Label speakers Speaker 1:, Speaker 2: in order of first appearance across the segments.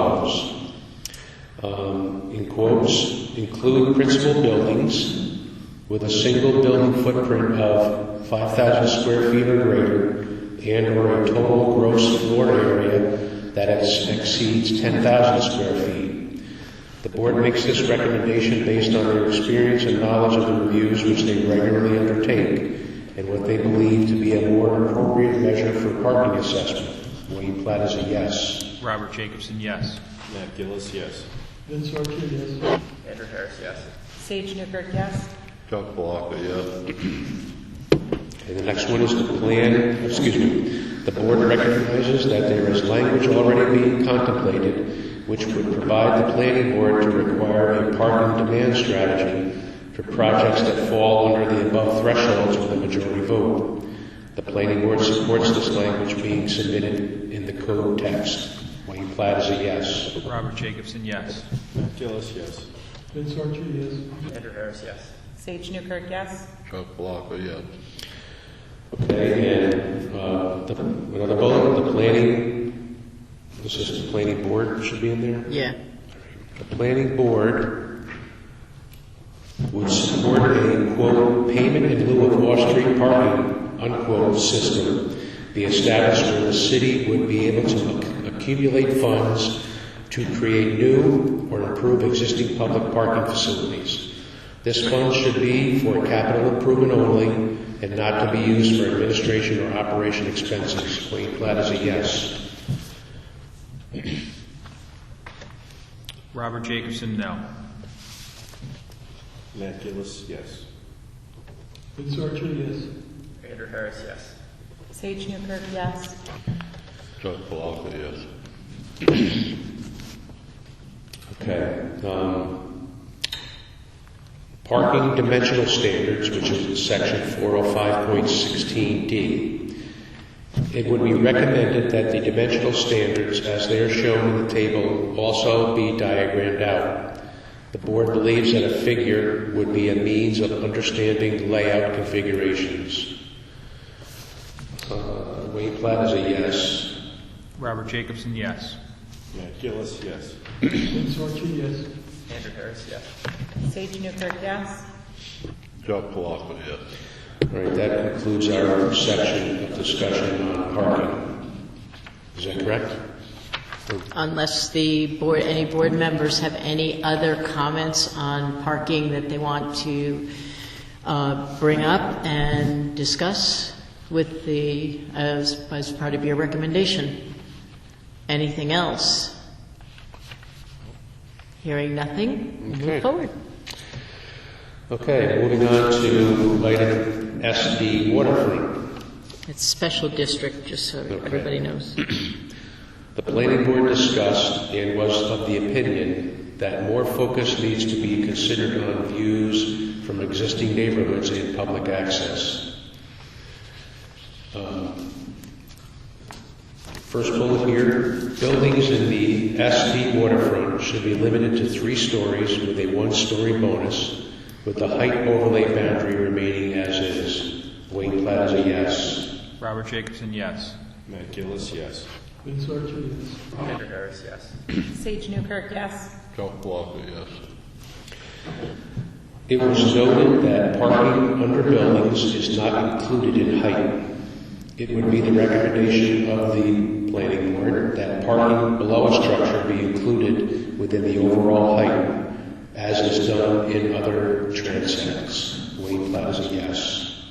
Speaker 1: follows. Um, In quotes, include principal buildings with a single building footprint of 5,000 square feet or greater and/or a total gross floor area that ex- exceeds 10,000 square feet. The board makes this recommendation based on their experience and knowledge of the reviews which they regularly undertake and what they believe to be a more appropriate measure for parking assessment. Wayne Platt is a yes.
Speaker 2: Robert Jacobson, yes.
Speaker 3: Matt Gillis, yes.
Speaker 4: Vince Archer, yes.
Speaker 5: Andrew Harris, yes.
Speaker 6: Sage Newkirk, yes.
Speaker 7: Chuck Palahka, yes.
Speaker 1: Okay, the next one is the plan, excuse me, the board recognizes that there is language already being contemplated which would provide the planning board to require a parking demand strategy for projects that fall under the above thresholds with a majority vote. The planning board supports this language being submitted in the code text. Wayne Platt is a yes.
Speaker 2: Robert Jacobson, yes.
Speaker 3: Matt Gillis, yes.
Speaker 4: Vince Archer, yes.
Speaker 5: Andrew Harris, yes.
Speaker 6: Sage Newkirk, yes.
Speaker 7: Chuck Palahka, yes.
Speaker 1: Okay, and, uh, the, another bullet, the planning, this is the planning board should be in there?
Speaker 8: Yeah.
Speaker 1: The planning board would support a, quote, payment in lieu of off-street parking, unquote, system be established where the city would be able to acc- accumulate funds to create new or improve existing public parking facilities. This fund should be for capital improvement only and not to be used for administration or operation expenses. Wayne Platt is a yes.
Speaker 2: Robert Jacobson, no.
Speaker 3: Matt Gillis, yes.
Speaker 4: Vince Archer, yes.
Speaker 5: Andrew Harris, yes.
Speaker 6: Sage Newkirk, yes.
Speaker 7: Chuck Palahka, yes.
Speaker 1: Okay. um, Parking dimensional standards, which is in section 405.16D. It would be recommended that the dimensional standards, as they are shown in the table, also be diagrammed out. The board believes that a figure would be a means of understanding layout configurations. Uh, Wayne Platt is a yes.
Speaker 2: Robert Jacobson, yes.
Speaker 3: Matt Gillis, yes.
Speaker 4: Vince Archer, yes.
Speaker 5: Andrew Harris, yes.
Speaker 6: Sage Newkirk, yes.
Speaker 7: Chuck Palahka, yes.
Speaker 1: All right, that concludes our section of discussion on parking. Is that correct?
Speaker 8: Unless the board, any board members have any other comments on parking that they want to uh, bring up and discuss with the, as, as part of your recommendation? Anything else? Hearing nothing,
Speaker 1: Okay.
Speaker 8: move forward.
Speaker 1: Okay, moving on to item SD waterfront.
Speaker 8: It's special district, just so everybody knows.
Speaker 1: The planning board discussed and was of the opinion that more focus needs to be considered on views from existing neighborhoods and public access. Um, First bullet here, buildings in the SD waterfront should be limited to three stories with a one-story bonus, with the height overlay boundary remaining as is. Wayne Platt is a yes.
Speaker 2: Robert Jacobson, yes.
Speaker 3: Matt Gillis, yes.
Speaker 4: Vince Archer, yes.
Speaker 5: Andrew Harris, yes.
Speaker 6: Sage Newkirk, yes.
Speaker 7: Chuck Palahka, yes.
Speaker 1: It was noted that parking under buildings is not included in height. It would be the recommendation of the planning board that parking below a structure be included within the overall height, as is done in other transects. Wayne Platt is a yes.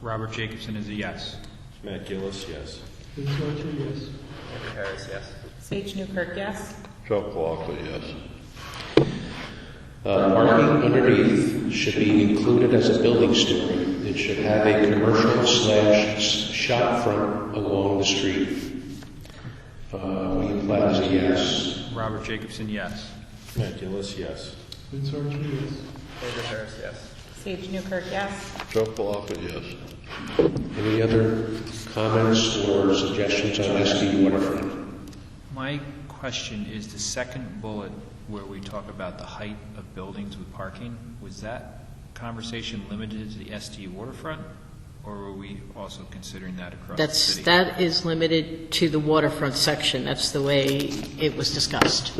Speaker 2: Robert Jacobson is a yes.
Speaker 3: Matt Gillis, yes.
Speaker 4: Vince Archer, yes.
Speaker 5: Andrew Harris, yes.
Speaker 6: Sage Newkirk, yes.
Speaker 7: Chuck Palahka, yes.
Speaker 1: Uh, Parking underneath should be included as a building story. It should have a commercial slash shop front along the street. Uh, William Platt is a yes.
Speaker 2: Robert Jacobson, yes.
Speaker 3: Matt Gillis, yes.
Speaker 4: Vince Archer, yes.
Speaker 5: Andrew Harris, yes.
Speaker 6: Sage Newkirk, yes.
Speaker 7: Chuck Palahka, yes.
Speaker 1: Any other comments or suggestions on SD waterfront?
Speaker 2: My question is the second bullet where we talk about the height of buildings with parking, was that conversation limited to the SD waterfront? Or were we also considering that across the
Speaker 8: That's,
Speaker 2: city?
Speaker 8: that is limited to the waterfront section. That's the way it was discussed.